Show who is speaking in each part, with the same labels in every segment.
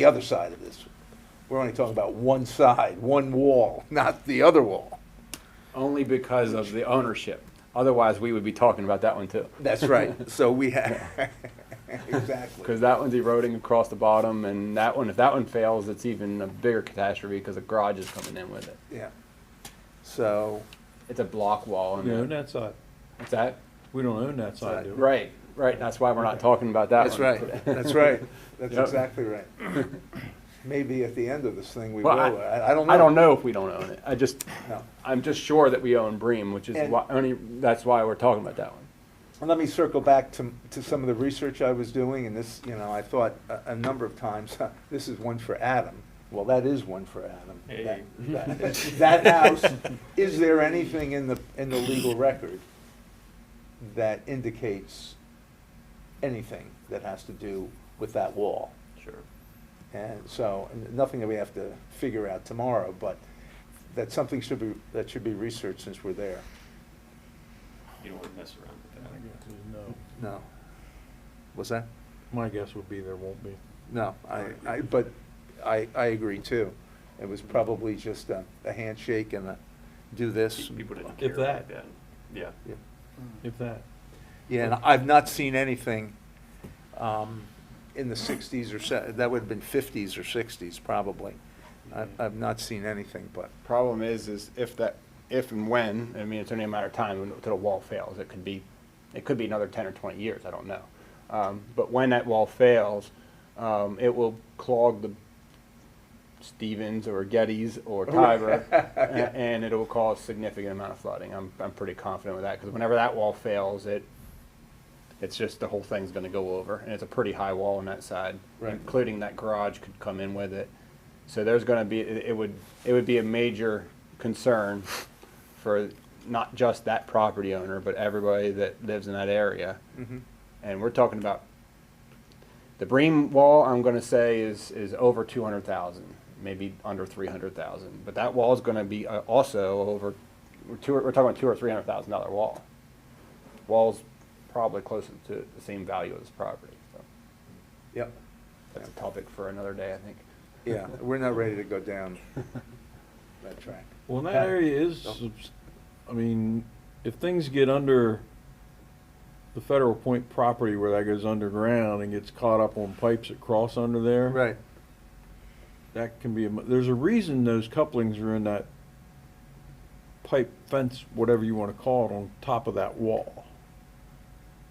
Speaker 1: the other side of this. We're only talking about one side, one wall, not the other wall.
Speaker 2: Only because of the ownership. Otherwise, we would be talking about that one too.
Speaker 1: That's right. So we have, exactly.
Speaker 2: Because that one's eroding across the bottom, and that one, if that one fails, it's even a bigger catastrophe because the garage is coming in with it.
Speaker 1: Yeah. So,
Speaker 2: It's a block wall. And
Speaker 3: We own that side.
Speaker 2: What's that?
Speaker 3: We don't own that side, do we?
Speaker 2: Right, right. That's why we're not talking about that
Speaker 1: that's
Speaker 2: one.
Speaker 1: right, that's right. That's
Speaker 2: Yep.
Speaker 1: exactly right. Maybe at the end of this thing, we will.
Speaker 2: Well,
Speaker 1: I
Speaker 2: I-
Speaker 1: I don't know.
Speaker 2: I don't know if we don't own it. I just,
Speaker 1: No.
Speaker 2: I'm just sure that we own Bream, which is
Speaker 1: And-
Speaker 2: why, only, that's why we're talking about that one.
Speaker 1: And let me circle back to, to some of the research I was doing, and this, you know, I thought a, a number of times, "Huh, this is one for Adam. Well, that is one for Adam. That- That that house, is there anything in the, in the legal record that indicates anything that has to do with that wall?
Speaker 3: Sure.
Speaker 1: And so, and nothing that we have to figure out tomorrow, but that something should be, that should be researched since we're there.
Speaker 4: You don't want to mess around with that.
Speaker 3: No.
Speaker 1: No. What's that?
Speaker 3: My guess would be there won't be.
Speaker 1: No, I, I, but I, I agree too. It was probably just a, a handshake and a do this.
Speaker 4: People didn't care
Speaker 3: If that.
Speaker 4: about that. Yeah.
Speaker 1: Yeah.
Speaker 3: If that.
Speaker 1: Yeah, and I've not seen anything, um, in the sixties or se- that would have been fifties or sixties probably. I, I've not seen anything, but,
Speaker 2: Problem is, is if that, if and when, I mean, it's only a matter of time until the wall fails. It could be, it could be another ten or twenty years, I don't know. Um, but when that wall fails, um, it will clog the Stevens or Gettys or Tiber, a- and it'll cause significant amount of flooding. I'm, I'm pretty confident with that, because whenever that wall fails, it, it's just the whole thing's gonna go over, and it's a pretty high wall on that side.
Speaker 1: Right.
Speaker 2: Including that garage could come in with it. So there's gonna be, it it would, it would be a major concern for not just that property owner, but everybody that lives in that area.
Speaker 1: Mhm.
Speaker 2: And we're talking about, the Bream wall, I'm gonna say, is, is over two hundred thousand, maybe under three hundred thousand. But that wall is gonna be uh, also over, we're two, we're talking about two or three hundred thousand dollar wall. Wall's probably closer to the same value as property, so
Speaker 1: yep,
Speaker 2: that's a topic for another day, I think.
Speaker 1: yeah, we're not ready to go down that track.
Speaker 3: Well, and that area is, subs- I mean, if things get under the Federal Point property where that goes underground and gets caught up on pipes that cross under there.
Speaker 1: Right,
Speaker 3: That can be, a mo- there's a reason those couplings are in that pipe fence, whatever you want to call it, on top of that wall.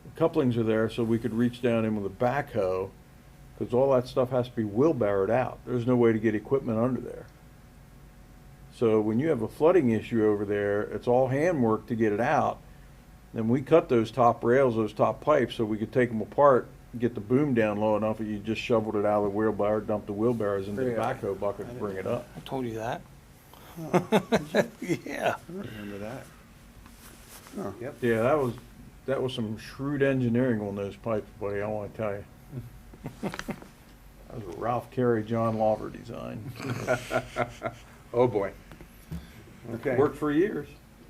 Speaker 3: The Couplings are there so we could reach down in with a backhoe, because all that stuff has to be wheelbarrowed out. There's no way to get equipment under there. So when you have a flooding issue over there, it's all handwork to get it out. Then we cut those top rails, those top pipes, so we could take them apart, get the boom down low enough that you just shoveled it out of the wheelbarrow, dumped the wheelbarrows into the
Speaker 2: Really?
Speaker 3: backhoe bucket and bring it up.
Speaker 5: I told you that. Yeah.
Speaker 2: Remember that? Oh,
Speaker 1: yep,
Speaker 3: Yeah, that was, that was some shrewd engineering on those pipes, buddy, I wanna tell you. That was a Ralph Carey, John Lawver design.
Speaker 1: oh boy. Okay,
Speaker 3: Worked for years.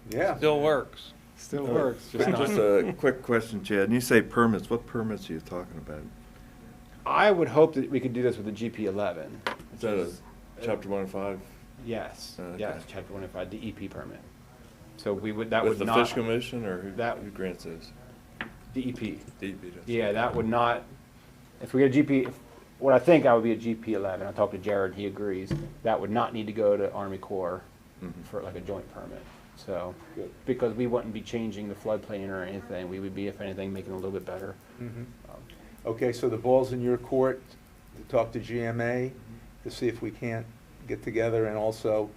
Speaker 1: yeah.
Speaker 5: Still works.
Speaker 2: Still works, just not.
Speaker 6: Just a quick question, Chad. When you say permits, what permits are you talking about?
Speaker 2: I would hope that we could do this with the GP eleven.
Speaker 6: Is that a chapter one and five
Speaker 2: Yes,
Speaker 6: Okay.
Speaker 2: yes, chapter one if I, the EP permit. So we would, that
Speaker 6: with
Speaker 2: would
Speaker 6: the
Speaker 2: not.
Speaker 6: fish commission or who,
Speaker 2: that-
Speaker 6: who grants those?
Speaker 2: DEP.
Speaker 6: DEP does.
Speaker 2: E Yeah, that would not, if we get a GP, if- what I think I would be a GP eleven, I talked to Jared, he agrees, that would not need to go to Army Corps for like a joint permit, so.
Speaker 1: Good.
Speaker 2: Because we wouldn't be changing the floodplain or anything, we would be, if anything, making it a little bit better.
Speaker 1: Mhm. Okay, so the ball's in your court to talk to GMA, to see if we can't get together, and also,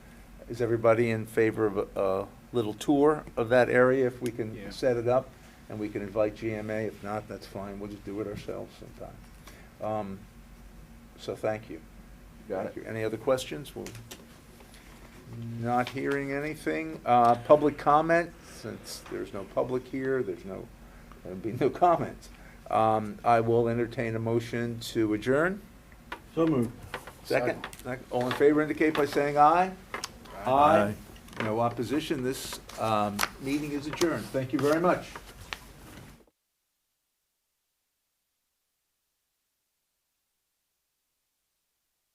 Speaker 1: is everybody in favor of a- a little tour of that area if we
Speaker 2: Yeah.
Speaker 1: can set it up? And we can invite GMA, if not, that's fine, we'll just do it ourselves sometime. Um, So thank you.
Speaker 2: Got
Speaker 1: Thank
Speaker 2: it.
Speaker 1: you. Any other questions? We'll- Not hearing anything. Uh, Public comment, since there's no public here, there's no, there'll be no comments. Um, I will entertain a motion to adjourn.
Speaker 3: So moved.
Speaker 1: Second, Sec- all in favor indicate by saying aye.
Speaker 6: Aye.
Speaker 1: No opposition, this um, meeting is adjourned. Thank you very much.